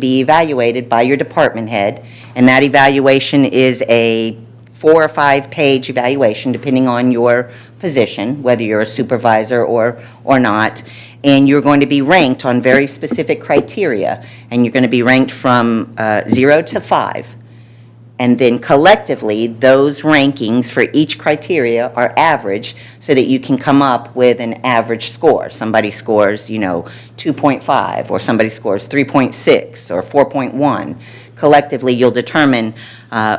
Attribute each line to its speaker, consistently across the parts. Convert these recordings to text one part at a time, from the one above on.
Speaker 1: be evaluated by your department head, and that evaluation is a four or five-page evaluation, depending on your position, whether you're a supervisor or, or not, and you're going to be ranked on very specific criteria, and you're going to be ranked from uh, zero to five. And then collectively, those rankings for each criteria are averaged so that you can come up with an average score. Somebody scores, you know, 2.5, or somebody scores 3.6 or 4.1. Collectively, you'll determine uh,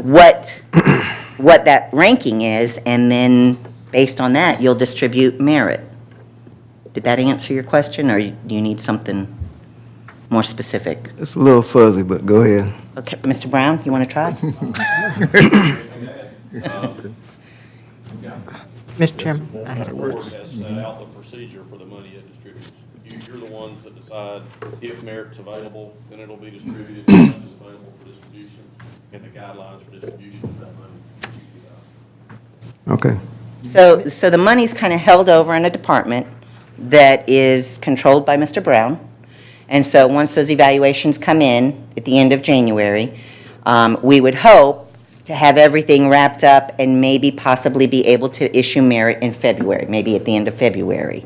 Speaker 1: what, what that ranking is, and then based on that, you'll distribute merit. Did that answer your question, or do you need something more specific?
Speaker 2: It's a little fuzzy, but go ahead.
Speaker 1: Okay, Mr. Brown, you want to try?
Speaker 3: Mr. Chairman, I had a
Speaker 4: The
Speaker 3: word.
Speaker 4: board has set out the procedure for the money it distributes. You, you're the ones that decide if merit's available, then it'll be distributed, if it's available for distribution, and the guidelines for distribution of that money. that you give out.
Speaker 2: Okay.
Speaker 1: So, so the money's kind of held over in a department that is controlled by Mr. Brown. And so, once those evaluations come in at the end of January, um, we would hope to have everything wrapped up and maybe possibly be able to issue merit in February, maybe at the end of February.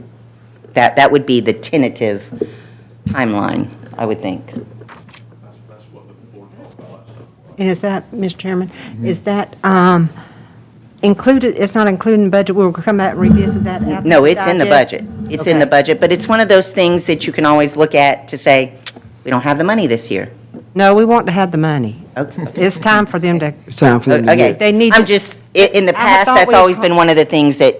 Speaker 1: That, that would be the tentative timeline, I would think.
Speaker 4: That's, that's what the board talked about, so.
Speaker 3: And is that, Mr. Chairman, is that um, included, it's not included in budget, we'll come back and revisit that after?
Speaker 1: No, it's in the
Speaker 3: digest?
Speaker 1: budget. It's in the
Speaker 3: Okay.
Speaker 1: budget, but it's one of those things that you can always look at to say, we don't have the money this year.
Speaker 3: No, we want to have the money.
Speaker 1: Okay.
Speaker 3: It's time for them to,
Speaker 2: It's time for them to
Speaker 1: Okay.
Speaker 2: get.
Speaker 3: They need
Speaker 1: I'm
Speaker 3: to-
Speaker 1: just, i- in the
Speaker 3: I
Speaker 1: past,
Speaker 3: thought
Speaker 1: that's
Speaker 3: we-
Speaker 1: always been one of the things that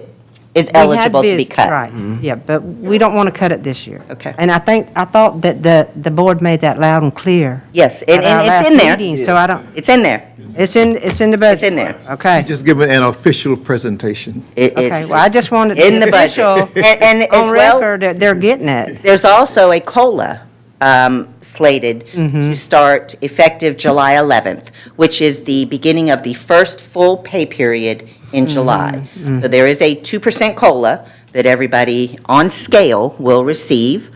Speaker 1: is
Speaker 3: We had
Speaker 1: eligible to be
Speaker 3: vis-
Speaker 1: cut.
Speaker 3: Right, yeah, but we don't want to cut it this year.
Speaker 1: Okay.
Speaker 3: And I think, I thought that the, the board made that loud and clear.
Speaker 1: Yes, and,
Speaker 3: at our
Speaker 1: and it's
Speaker 3: last
Speaker 1: in there.
Speaker 3: meeting, So I don't,
Speaker 1: It's in there.
Speaker 3: it's in, it's in the budget.
Speaker 1: It's in there.
Speaker 3: Okay.
Speaker 5: Just giving an official presentation.
Speaker 1: It-
Speaker 3: Okay,
Speaker 1: it's-
Speaker 3: well, I just wanted
Speaker 1: In the
Speaker 3: to be
Speaker 1: budget.
Speaker 3: official
Speaker 1: And, and as
Speaker 3: on
Speaker 1: well,
Speaker 3: record that they're getting it.
Speaker 1: there's also a COLA um, slated
Speaker 3: Mm-hmm.
Speaker 1: to start effective July 11th, which is the beginning of the first full pay period
Speaker 3: Mm-hmm.
Speaker 1: in July. So there is a 2% COLA that everybody on scale will receive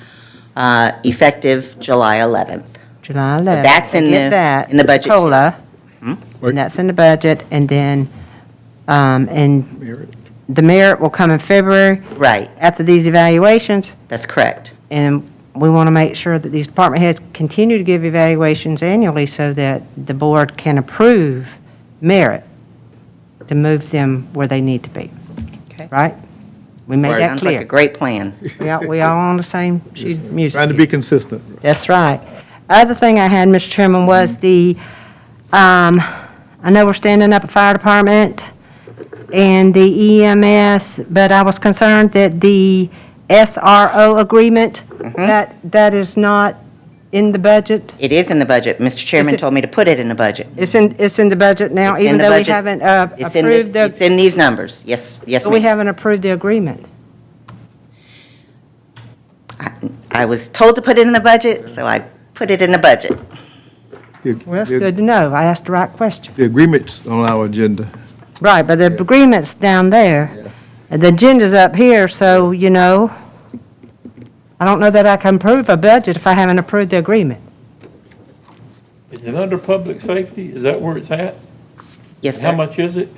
Speaker 1: uh, effective July 11th.
Speaker 3: July 11th.
Speaker 1: that's in
Speaker 3: Forget
Speaker 1: the-
Speaker 3: that,
Speaker 1: in the budget, too. Hmm?
Speaker 3: COLA. And that's in the budget, and then, um, and
Speaker 5: Merit.
Speaker 3: the merit will come in February
Speaker 1: Right,
Speaker 3: after these evaluations,
Speaker 1: that's correct.
Speaker 3: and we want to make sure that these department heads continue to give evaluations annually so that the board can approve merit to move them where they need to be.
Speaker 1: Okay.
Speaker 3: Right? We made that
Speaker 1: Sounds like a
Speaker 3: clear.
Speaker 1: great plan.
Speaker 3: We all, we all on the same sheet of music.
Speaker 5: Trying to
Speaker 3: here.
Speaker 5: be consistent.
Speaker 3: That's right. Other thing I had, Mr. Chairman, was
Speaker 1: Mm-hmm.
Speaker 3: the, um, I know we're standing up a fire department and the EMS, but I was concerned that the SRO agreement,
Speaker 1: Mm-hmm.
Speaker 3: that, that is not in the budget?
Speaker 1: It is in the budget. Mr. Chairman
Speaker 3: it-
Speaker 1: told me to put it in the budget.
Speaker 3: It's in, it's in the budget now,
Speaker 1: It's in
Speaker 3: even
Speaker 1: the
Speaker 3: though we
Speaker 1: budget.
Speaker 3: haven't uh,
Speaker 1: It's in this-
Speaker 3: approved
Speaker 1: It's
Speaker 3: the,
Speaker 1: in these numbers. Yes, yes,
Speaker 3: we
Speaker 1: ma'am.
Speaker 3: haven't approved the agreement.
Speaker 1: I was told to put it in the budget, so I put it in the budget.
Speaker 5: The-
Speaker 3: Well, that's
Speaker 5: the-
Speaker 3: good to know. I asked the right question.
Speaker 5: The agreement's on our agenda.
Speaker 3: Right, but the agreement's down there. and The agenda's up here, so, you know, I don't know that I can approve a budget if I haven't approved the agreement.
Speaker 6: Is it under public safety? Is that where it's at?
Speaker 1: Yes,
Speaker 6: How
Speaker 1: sir.
Speaker 6: much is it?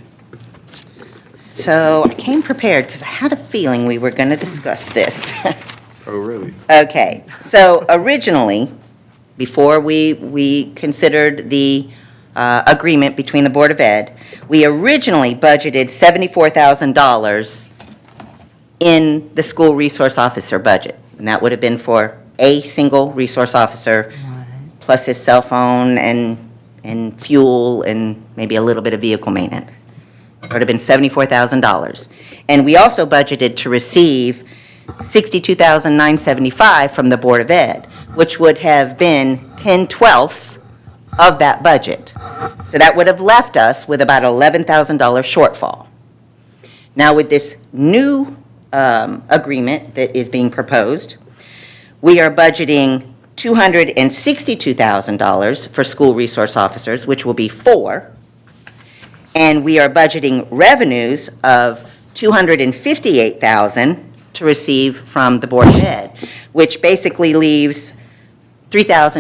Speaker 1: So I came prepared because I had a feeling we were going to discuss this.
Speaker 5: Oh, really?
Speaker 1: Okay, so originally, before we, we considered the uh, agreement between the Board of Ed, we originally budgeted $74,000 in the school resource officer budget. And that would have been for a single resource officer, plus his cell phone and, and fuel and maybe a little bit of vehicle maintenance. It would have been $74,000. And we also budgeted to receive $62,975 from the Board of Ed, which would have been 10 twelfths of that budget. So that would have left us with about $11,000 shortfall. Now, with this new um, agreement that is being proposed, we are budgeting $262,000 for school resource officers, which will be four. And we are budgeting revenues of 258,000 to receive from the Board of Ed, which basically leaves 3,000